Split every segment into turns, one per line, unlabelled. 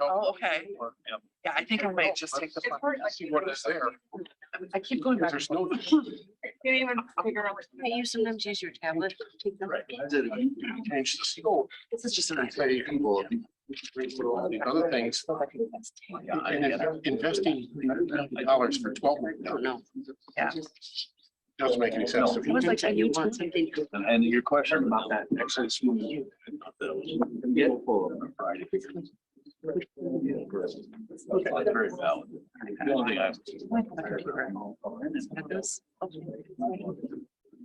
Oh, okay.
Yeah.
Yeah, I think I might just take the.
It's
plunge.
See what is there.
I keep going back.
There's no.
Can't even figure out.
Hey, you sometimes use your tablet. Take them.
Change the scope.
This is just an
and
idea.
say, well, all the Other things. And if you're investing dollars for twelve
No.
Yeah.
doesn't make any sense.
It was like that you want something.
And your question about that.
Actually, it's smooth.
Okay, Very valid. The only thing I-
At this- okay.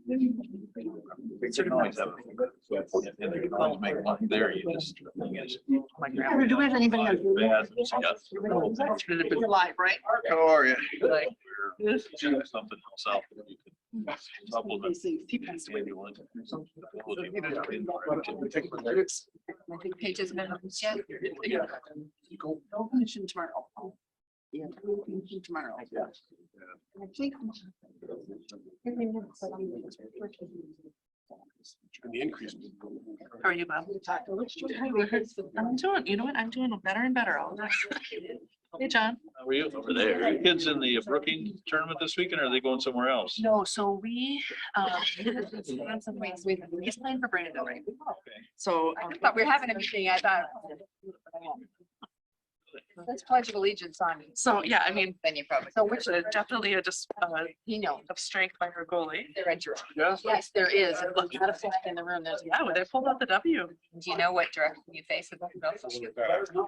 They can always have- and they can always make money there, you just- thing is-
My grandma.
Do we have anybody on?
They ask them, yes.
You're live, right?
How are you?
We're doing Something else out. there you could supplement.
He passed away.
Maybe one. Something.
I think Paige is gonna, yeah,
Yeah. Go.
no commission tomorrow. Yeah. no commission Tomorrow. I think.
And the increase.
How are you, Bob? I'm doing, you know what? I'm doing better and better all the time. Hey, John.
Were you over there? Are your Kids in the Brookings tournament this weekend, or are they going somewhere else?
No, so we, um, we had some weeks, we, we just playing for Brandon, right? So. um,
But we're having a meeting, I thought. Let's pledge of allegiance on.
So, yeah, I mean,
Then you probably.
so which is definitely a just, uh,
You know.
of strength by her goalie.
They're at your.
Yes.
Yes, there is. There's not a flag in the room. There's,
Yeah, well, they pulled out the W.
do you know what direction you face? it?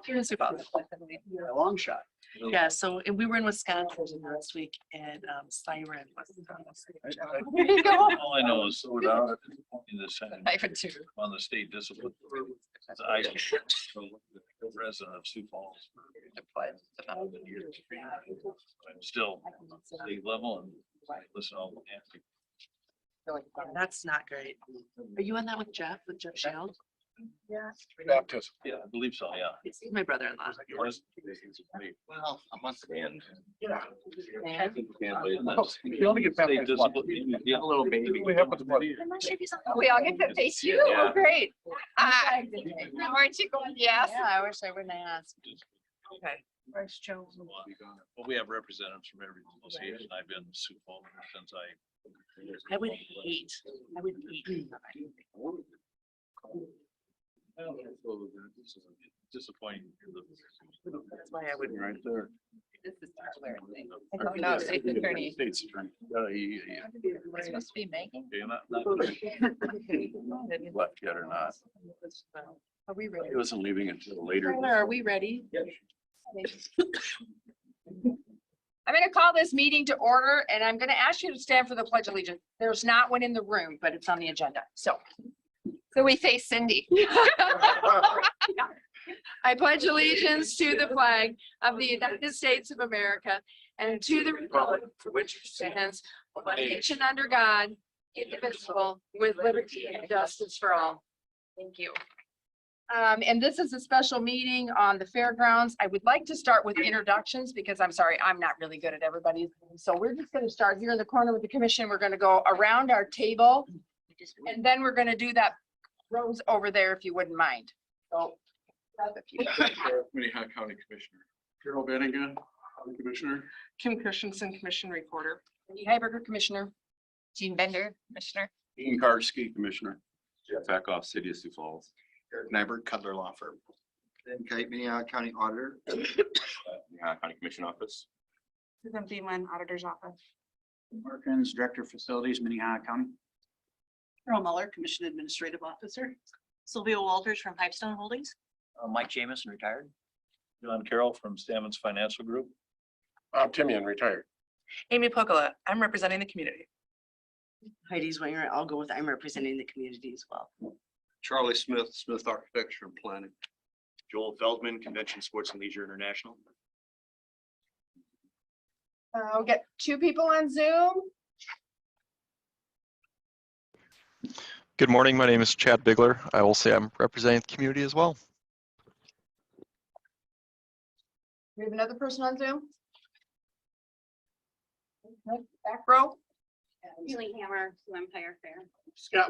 Here's who bought it.
A long shot.
Yeah, so, and we were in Wisconsin last week and, um, Siren was.
There you go.
All I know is so down in the Senate,
I even too.
on the state discipline. So I- Resident of Sioux Falls. I'm still state level and I listen all the antics.
That's not great. Are you on that with Jeff, with Jeff Shield?
Baptism.
Yeah, I believe so, yeah.
He's my brother-in-law.
Yours?
Well, I must.
And-
Yeah.
and that's-
You only get
State
baptized once.
discipline, you get a little baby.
What happened to my-
I'm not sure if he's on.
We all get to face you.
Yeah.
Oh, great. Ah, Aren't you going, yes?
I wish I wouldn't have asked.
Okay.
Bryce Jones.
Well, we have representatives from every association. I've been in Sioux Falls since I.
I would hate, I would hate.
Well, it's Disappointing.
That's why I would.
Right there.
This is where I think.
I don't know, state's attorney.
State's attorney. Uh, he- he-
It's supposed to be making.
Yeah, not, not that he left yet or not.
Are we ready?
He wasn't leaving until later.
Tyler, Are we ready?
I'm going to call this meeting to order and I'm going to ask you to stand for the pledge of allegiance. There's not one in the room, but it's on the agenda. So. So we face Cindy. I pledge allegiance to the flag of the United States of America and to the republic for which it stands, one nation under God, indivisible, with liberty and justice for all. Thank you. Um, and this is a special meeting on the fairgrounds. I would like to start with introductions because I'm sorry, I'm not really good at everybody's. name. So we're just gonna start here in the corner with the commission. We're gonna go around our table. And then we're gonna do that rose over there if you wouldn't mind. So.
Minnehaha County Commissioner. Carol Bennigan, County Commissioner.
Kim Christensen, Commission Recorder.
Cindy Heiberger, Commissioner.
Jean Bender, Commissioner.
Ian Karski, Commissioner.
Jeff Eckhoff, City of Sioux Falls.
Eric Nyberg, Cutler Law Firm. Ben Kite, Minnehaha County Auditor. Minnehaha County Commission Office.
Susan Beaman, Auditor's Office.
Markins, Director of Facilities, Minnehaha County.
Carol Muller, Commission Administrative Officer. Sylvia Walters from Pipestone Holdings.
Uh, Mike Jamison, retired.
John Carroll from Stammens Financial Group.
Bob Timian, retired.
Amy Pocola, I'm representing the community.
Heidi Swinger, I'll go with, I'm representing the community as well.
Charlie Smith, Smith Architecture and Planning. Joel Feldman, Convention Sports and Leisure International.
Uh, we'll get two people on Zoom.
Good morning. My name is Chad Bigler. I will say I'm representing the community as well.
We have another person on Zoom. Back row.
Julie Hammer, Empire Fair.
Scott